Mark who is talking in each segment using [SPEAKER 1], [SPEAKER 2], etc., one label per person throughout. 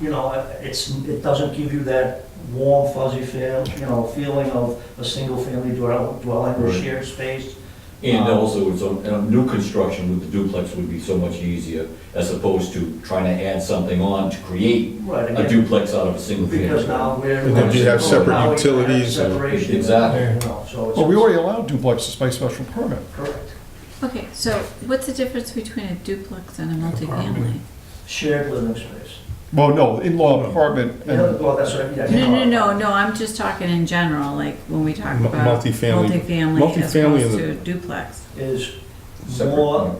[SPEAKER 1] you know, it's, it doesn't give you that warm fuzzy feel, you know, feeling of a single-family dwell- dwelling or
[SPEAKER 2] Right.
[SPEAKER 1] shared space.
[SPEAKER 2] And
[SPEAKER 1] Um,
[SPEAKER 2] also, it's, a- a new construction with the duplex would be so much easier as opposed to trying to add something on to create
[SPEAKER 1] Right,
[SPEAKER 2] a
[SPEAKER 1] again,
[SPEAKER 2] duplex out of a single family.
[SPEAKER 1] because now we're.
[SPEAKER 3] And then you have separate
[SPEAKER 1] now we have
[SPEAKER 3] utilities and-
[SPEAKER 1] Separation.
[SPEAKER 2] Exactly.
[SPEAKER 1] you know, So
[SPEAKER 4] Well, Oh, we
[SPEAKER 1] it's
[SPEAKER 4] already allow duplexes by special permit.
[SPEAKER 1] correct.
[SPEAKER 5] Okay, so what's the difference between a duplex and a multifamily?
[SPEAKER 1] Shared living space.
[SPEAKER 4] Well, no, in-law apartment
[SPEAKER 1] You know,
[SPEAKER 4] and
[SPEAKER 1] Well, that's what, yeah.
[SPEAKER 5] No,
[SPEAKER 1] you know,
[SPEAKER 5] no, no, no, I'm just talking in general, like when we talk
[SPEAKER 3] Mu-
[SPEAKER 5] about.
[SPEAKER 3] multifamily-
[SPEAKER 5] Multifamily as
[SPEAKER 3] multifamily is
[SPEAKER 5] opposed
[SPEAKER 3] a-
[SPEAKER 5] to duplex.
[SPEAKER 1] Is
[SPEAKER 2] Separate.
[SPEAKER 1] more,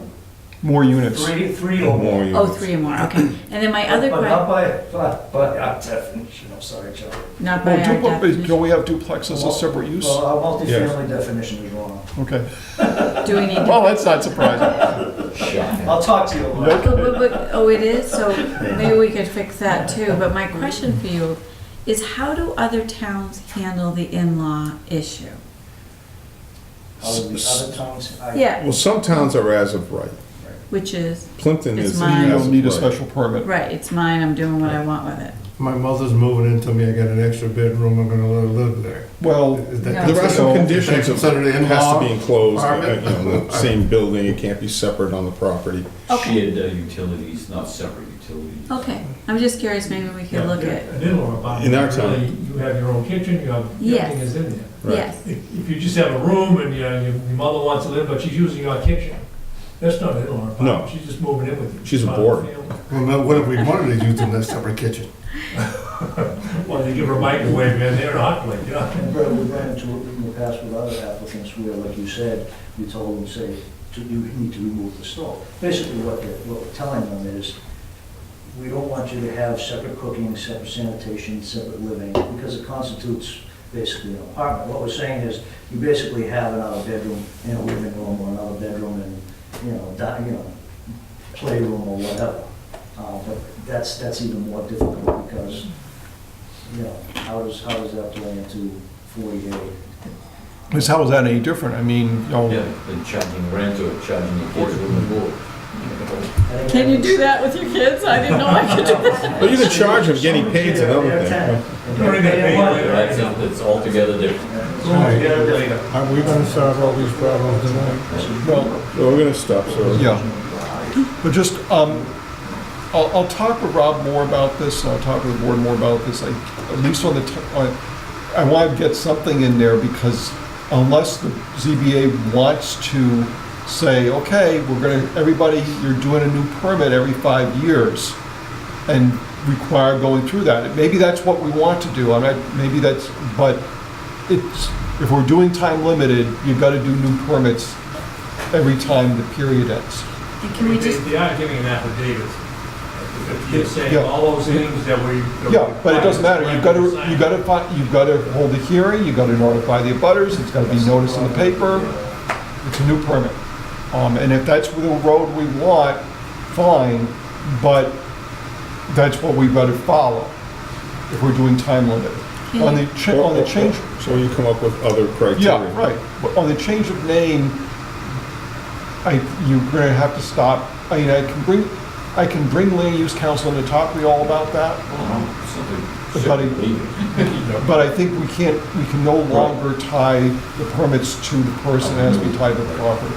[SPEAKER 4] more units.
[SPEAKER 1] three, three or more.
[SPEAKER 5] Oh, three or more, okay. And then my other
[SPEAKER 1] But not
[SPEAKER 5] question,
[SPEAKER 1] by, but, but our definition, I'm sorry, Charlie.
[SPEAKER 5] not by
[SPEAKER 4] Well,
[SPEAKER 5] our
[SPEAKER 4] duplex, don't
[SPEAKER 5] definition,
[SPEAKER 4] we have duplexes as separate use?
[SPEAKER 1] Well, our
[SPEAKER 3] Yes.
[SPEAKER 1] multifamily definition is wrong.
[SPEAKER 4] Okay,
[SPEAKER 5] do we need to?
[SPEAKER 4] well, that's not surprising.
[SPEAKER 2] Shocking.
[SPEAKER 1] I'll talk to you about it.
[SPEAKER 4] Nope.
[SPEAKER 5] But- but- but- Oh, it is, so maybe we could fix that too, but my question for you is how do other towns handle the in-law issue?
[SPEAKER 1] Other other towns, I.
[SPEAKER 5] Yeah,
[SPEAKER 3] Well, some towns are as of right.
[SPEAKER 5] which is,
[SPEAKER 3] Plimpton
[SPEAKER 5] It's
[SPEAKER 3] is.
[SPEAKER 4] You
[SPEAKER 5] mine.
[SPEAKER 3] as
[SPEAKER 4] don't
[SPEAKER 3] of
[SPEAKER 4] need a
[SPEAKER 3] right.
[SPEAKER 4] special permit.
[SPEAKER 5] right, it's mine, I'm doing what I want with it.
[SPEAKER 6] My mother's moving into me, I got an extra bedroom, I'm gonna let her live there.
[SPEAKER 4] Well,
[SPEAKER 6] Is that
[SPEAKER 5] No.
[SPEAKER 3] There are some
[SPEAKER 6] considered-
[SPEAKER 3] conditions,
[SPEAKER 6] Is
[SPEAKER 3] of-
[SPEAKER 6] that considered
[SPEAKER 3] it has to be
[SPEAKER 6] in-law?
[SPEAKER 3] enclosed, uh,
[SPEAKER 6] apartment?
[SPEAKER 3] you know, the same building, it can't be separate on the property.
[SPEAKER 5] Okay.
[SPEAKER 2] Shared uh, utilities, not separate utilities.
[SPEAKER 1] Oh.
[SPEAKER 5] Okay, I'm just curious, maybe we could look at,
[SPEAKER 7] An in-law apartment.
[SPEAKER 3] In our
[SPEAKER 7] you really- You have your own kitchen, you have,
[SPEAKER 5] Yes.
[SPEAKER 7] everything is in there.
[SPEAKER 3] Right.
[SPEAKER 5] yes,
[SPEAKER 7] If if you just have a room and your, your mother wants to live, but she's using your kitchen, that's not an in-law
[SPEAKER 3] No.
[SPEAKER 7] apartment, she's just moving in with you.
[SPEAKER 3] She's a
[SPEAKER 7] Part of
[SPEAKER 3] boarder.
[SPEAKER 7] the family.
[SPEAKER 6] Well, now, what if we wanted to use them as separate kitchen?
[SPEAKER 7] Well, they give her a microwave in there, and a hot plate, yeah.
[SPEAKER 1] And Brett, we ran into it in the past with other applicants where, like you said, you told them, say, to- you need to remove the stove. Basically, what they're, what we're telling them is, we don't want you to have separate cooking, separate sanitation, separate living, because it constitutes basically an apartment. What we're saying is, you basically have another bedroom and a living room, or another bedroom and, you know, di, you know, playroom or whatever. Uh, but that's, that's even more difficult because you know, how does, how does that play into 48?
[SPEAKER 4] is how is that any different? I mean, you
[SPEAKER 2] Yeah,
[SPEAKER 4] know,
[SPEAKER 2] than charging rent or charging your kids room and board.
[SPEAKER 5] can you do that with your kids? I didn't know I could do that.
[SPEAKER 3] But you can charge them getting paid to another thing.
[SPEAKER 7] You're already gonna pay
[SPEAKER 2] But
[SPEAKER 7] later.
[SPEAKER 2] That's, that's altogether different.
[SPEAKER 6] Are we gonna solve all these problems tonight?
[SPEAKER 4] well,
[SPEAKER 3] So we're gonna stop, so.
[SPEAKER 4] yeah. But just, um, I'll, I'll talk with Rob more about this, and I'll talk with the board more about this, I, at least on the, t- on- I want to get something in there, because unless the ZBA wants to say, okay, we're gonna, everybody, you're doing a new permit every five years, and require going through that, maybe that's what we want to do, I mean, maybe that's, but it's, if we're doing time limited, you've got to do new permits every time the period ends.
[SPEAKER 5] And can we
[SPEAKER 7] They-
[SPEAKER 5] just,
[SPEAKER 7] They are giving an affidavit. They're saying
[SPEAKER 4] Yeah.
[SPEAKER 7] all those things that we. that we
[SPEAKER 4] Yeah, but it doesn't matter, you've got to,
[SPEAKER 7] require
[SPEAKER 4] you've got to, fi- you've got to hold a hearing, you've got to notify the abutters, it's got to be noticed in the paper, it's a new permit. Um, and if that's the road we want, fine, but that's what we've got to follow if we're doing time limit. On the, cha- on the change,
[SPEAKER 3] So you come up with other criteria.
[SPEAKER 4] yeah, right, but on the change of name, I, you're gonna have to stop, I mean, I can bring, I can bring land use council in to talk to you all about that,
[SPEAKER 2] Something-
[SPEAKER 4] But buddy-
[SPEAKER 2] something-
[SPEAKER 4] But I think we can't, we can no longer tie the permits to the person as we tie the property.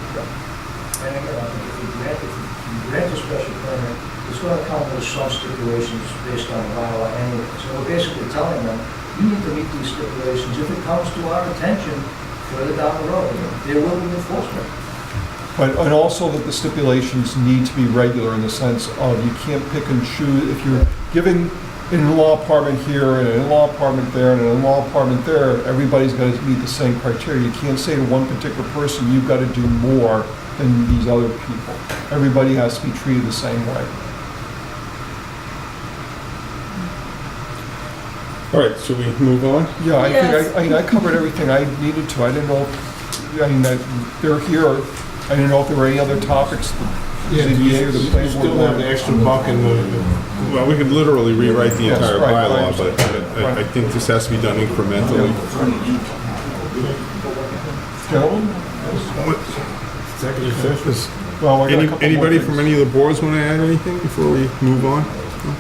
[SPEAKER 1] And again, I think if you grant, if you grant a special permit, it's going to come with some stipulations based on bylaw anyway. So we're basically telling them, you need to meet these stipulations. If it comes to our attention further down the road, there will be enforcement.
[SPEAKER 4] But, and also that the stipulations need to be regular in the sense of you can't pick and choose. If you're giving an in-law apartment here and an in-law apartment there and an in-law apartment there, everybody's got to meet the same criteria. You can't say to one particular person, you've got to do more than these other people. Everybody has to be treated the same way.
[SPEAKER 3] All right, should we move on?
[SPEAKER 4] Yeah, I
[SPEAKER 5] Yes.
[SPEAKER 4] think, I- I mean, I covered everything I needed to, I didn't know, if- I mean, that they're here, I didn't know if there were any other topics, the ZBA or the planning board.
[SPEAKER 6] Still have the
[SPEAKER 4] wanted.
[SPEAKER 6] extra buck in the,
[SPEAKER 3] Well, we could literally rewrite the
[SPEAKER 4] Yes,
[SPEAKER 3] entire
[SPEAKER 4] right, right.
[SPEAKER 3] bylaw, but I- I, I think this has to be done incrementally.
[SPEAKER 4] Gentlemen?
[SPEAKER 3] Executive session.
[SPEAKER 4] Well, I got a
[SPEAKER 3] Any,
[SPEAKER 4] couple more
[SPEAKER 3] anybody
[SPEAKER 4] things.
[SPEAKER 3] from any of the boards want to add anything before we move on?